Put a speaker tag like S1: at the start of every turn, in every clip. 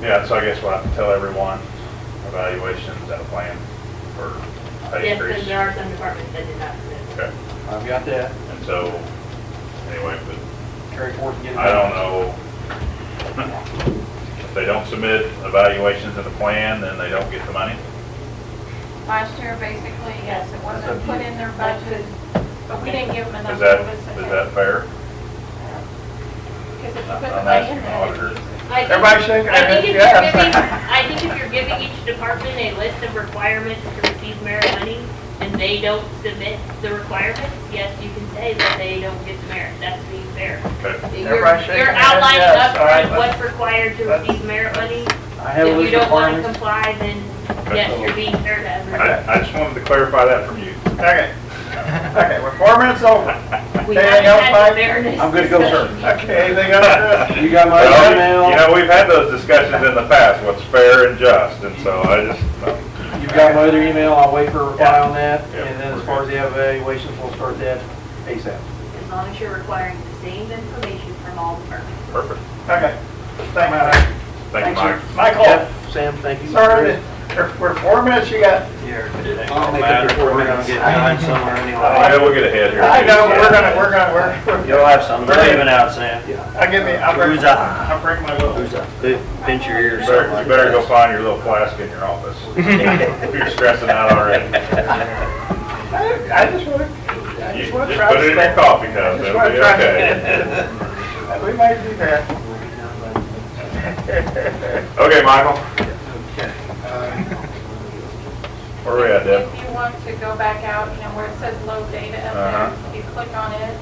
S1: Yeah, so I guess we'll have to tell everyone evaluations and a plan for pay
S2: Yes,
S1: increase.
S2: and there are some departments that did not submit.
S1: Okay,
S3: I've got that,
S1: and so, anyway,
S3: carry forth and get
S1: but
S3: it.
S1: I don't know. If they don't submit evaluations and a plan, then they don't get the money?
S4: Last year, basically, yes, it
S3: That's up
S4: wasn't
S3: to
S4: put
S3: you.
S4: in their budget, but we didn't give them enough
S1: Is that,
S4: notice.
S1: is that fair?
S4: Because if you put the
S1: I'm
S4: money in
S1: asking the
S4: there.
S1: auditor.
S2: I think-
S3: Everybody shaking
S2: I
S3: their
S2: think
S3: heads,
S2: if you're
S3: yeah.
S2: giving, I think if you're giving each department a list of requirements to receive merit money, and they don't submit the requirements, yes, you can say that they don't get the merit, that's being fair.
S1: Okay,
S2: You're
S3: Everybody shaking
S2: you're
S3: their heads,
S2: outlining
S3: yes. All right,
S2: upfront
S3: let's-
S2: what's required to
S3: let's-
S2: receive merit money.
S3: I have a
S2: If you
S3: list of
S2: don't want to comply,
S3: requirements.
S2: then
S1: Okay.
S2: yes, you're being fair to everyone.
S1: I, I just wanted to clarify that from you.
S3: Okay, okay, we're four minutes over.
S2: We
S3: Anything
S2: haven't
S3: else,
S2: had
S3: Mike?
S2: the fairness
S3: I'm good to go, sir.
S2: discussion yet.
S3: Okay, anything else? You got my
S1: Well,
S3: email?
S1: You know, we've had those discussions in the past, what's fair and just, and so I just,
S3: You've got my other email, I'll wait for a reply on that,
S1: Yeah.
S3: and then as far as the evaluations, we'll start that ASAP.
S5: as long as you're requiring the same information from all departments.
S1: perfect.
S6: Okay, thank you.
S1: Thank you, Mike.
S6: Michael,
S3: Jeff, Sam, thank you.
S6: sir, we're- we're four minutes, you got,
S3: I'll make up your four minutes. We're gonna get time somewhere
S1: Yeah,
S3: anyway.
S1: we'll get ahead here.
S6: I know, we're gonna, we're gonna, we're,
S3: You'll have some, they're leaving out, Sam.
S6: I give me, I'll bring,
S3: Who's up?
S6: I'll bring my little.
S3: Who's up? Pinch your ear
S1: You better,
S3: or something
S1: you
S3: like
S1: better go
S3: that.
S1: find your little flask in your office. If You're stressing out already.
S6: I I just wanna, I
S1: You
S6: just
S1: just
S6: wanna try
S1: put it in
S6: to
S1: your
S6: stay.
S1: coffee cup,
S6: Just
S1: it'll
S6: wanna
S1: be
S6: try
S1: okay.
S6: We might do that.
S1: Okay, Michael? Where we at, Deb?
S4: If you want to go back out, you know, where it says load data up
S1: Uh-huh.
S4: there, you click on it,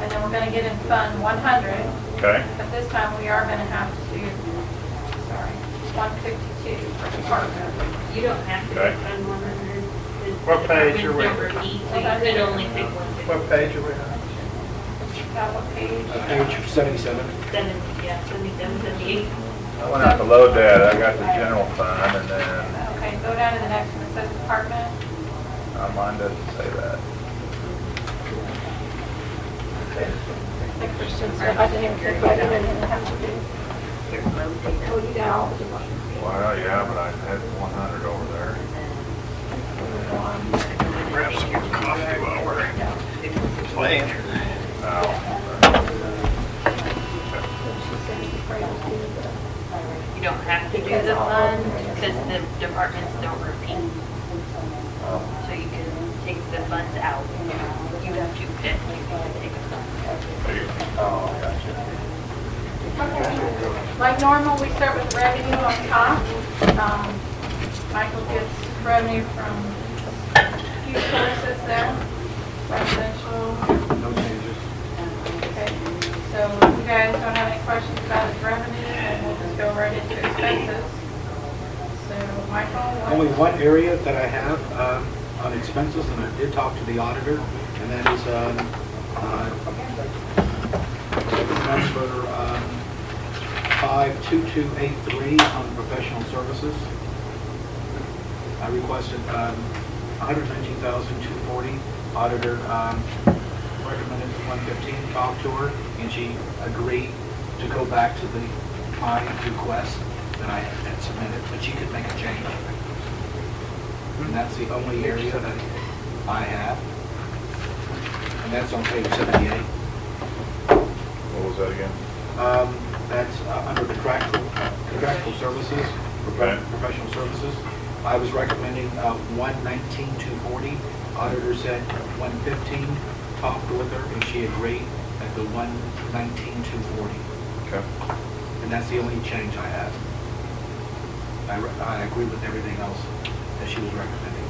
S4: and then we're gonna get in Fund 100,
S1: Okay,
S4: but this time we are gonna have to, sorry, 152 for department.
S2: You don't have to
S1: Okay.
S2: spend one hundred.
S6: What page are we-
S2: Number E, so you could only pick one
S6: What page are we on?
S4: That what page?
S3: Page seventy-seven.
S2: fifty-seven, yeah, seventy-seven, seventy-eight.
S1: I went out to load that, I got the general fund, and then,
S4: Okay, go down to the next one, it says department.
S1: uh, mine doesn't say that. Well, yeah, but I had one hundred over there. Grab some more coffee while we're playing.
S2: You don't have to do the fund because the departments don't repeat. So you can take the funds out. You have to pick, you can take a fund.
S4: Like normal, we start with revenue on top. Um, Michael gets revenue from a few sources there, residential. Okay, so if you guys don't have any questions about his revenue, then we'll just go right into expenses. So
S7: Only
S4: Michael, what-
S7: one area that I have um, on expenses, and I did talk to the auditor, and that is um, uh, transfer um, 52283 on professional services. I requested um, 119240 Auditor um, recommended 115 Talked to her, and she agreed to go back to the, my request that I had submitted, but she could make a change. And that's the only area that I have. And that's on page 78.
S1: What was that again?
S7: Um, That's uh, under contractual, contractual services,
S1: Okay.
S7: professional services. I was recommending uh, 119, 240. Auditor said 115. Talked with her and she agreed at the 119, 240.
S1: Okay.
S7: And that's the only change I have. I re- I agree with everything else that she was recommending.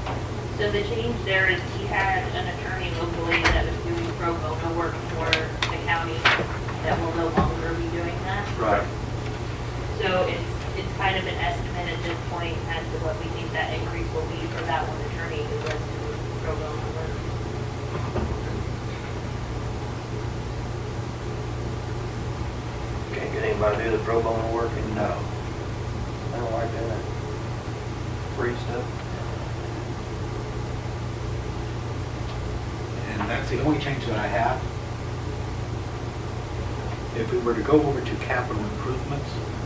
S2: So the change there is he had an attorney locally that was doing pro bono work for the county that will no longer be doing that.
S7: Right.
S2: So it's, it's kind of an estimate at this point as to what we think that increase will be for that one attorney who was doing pro bono work.
S3: Can't get anybody to do the pro bono work, and no. I don't like doing that. Free stuff.
S7: And that's the only change that I have. If we were to go over to capital improvements,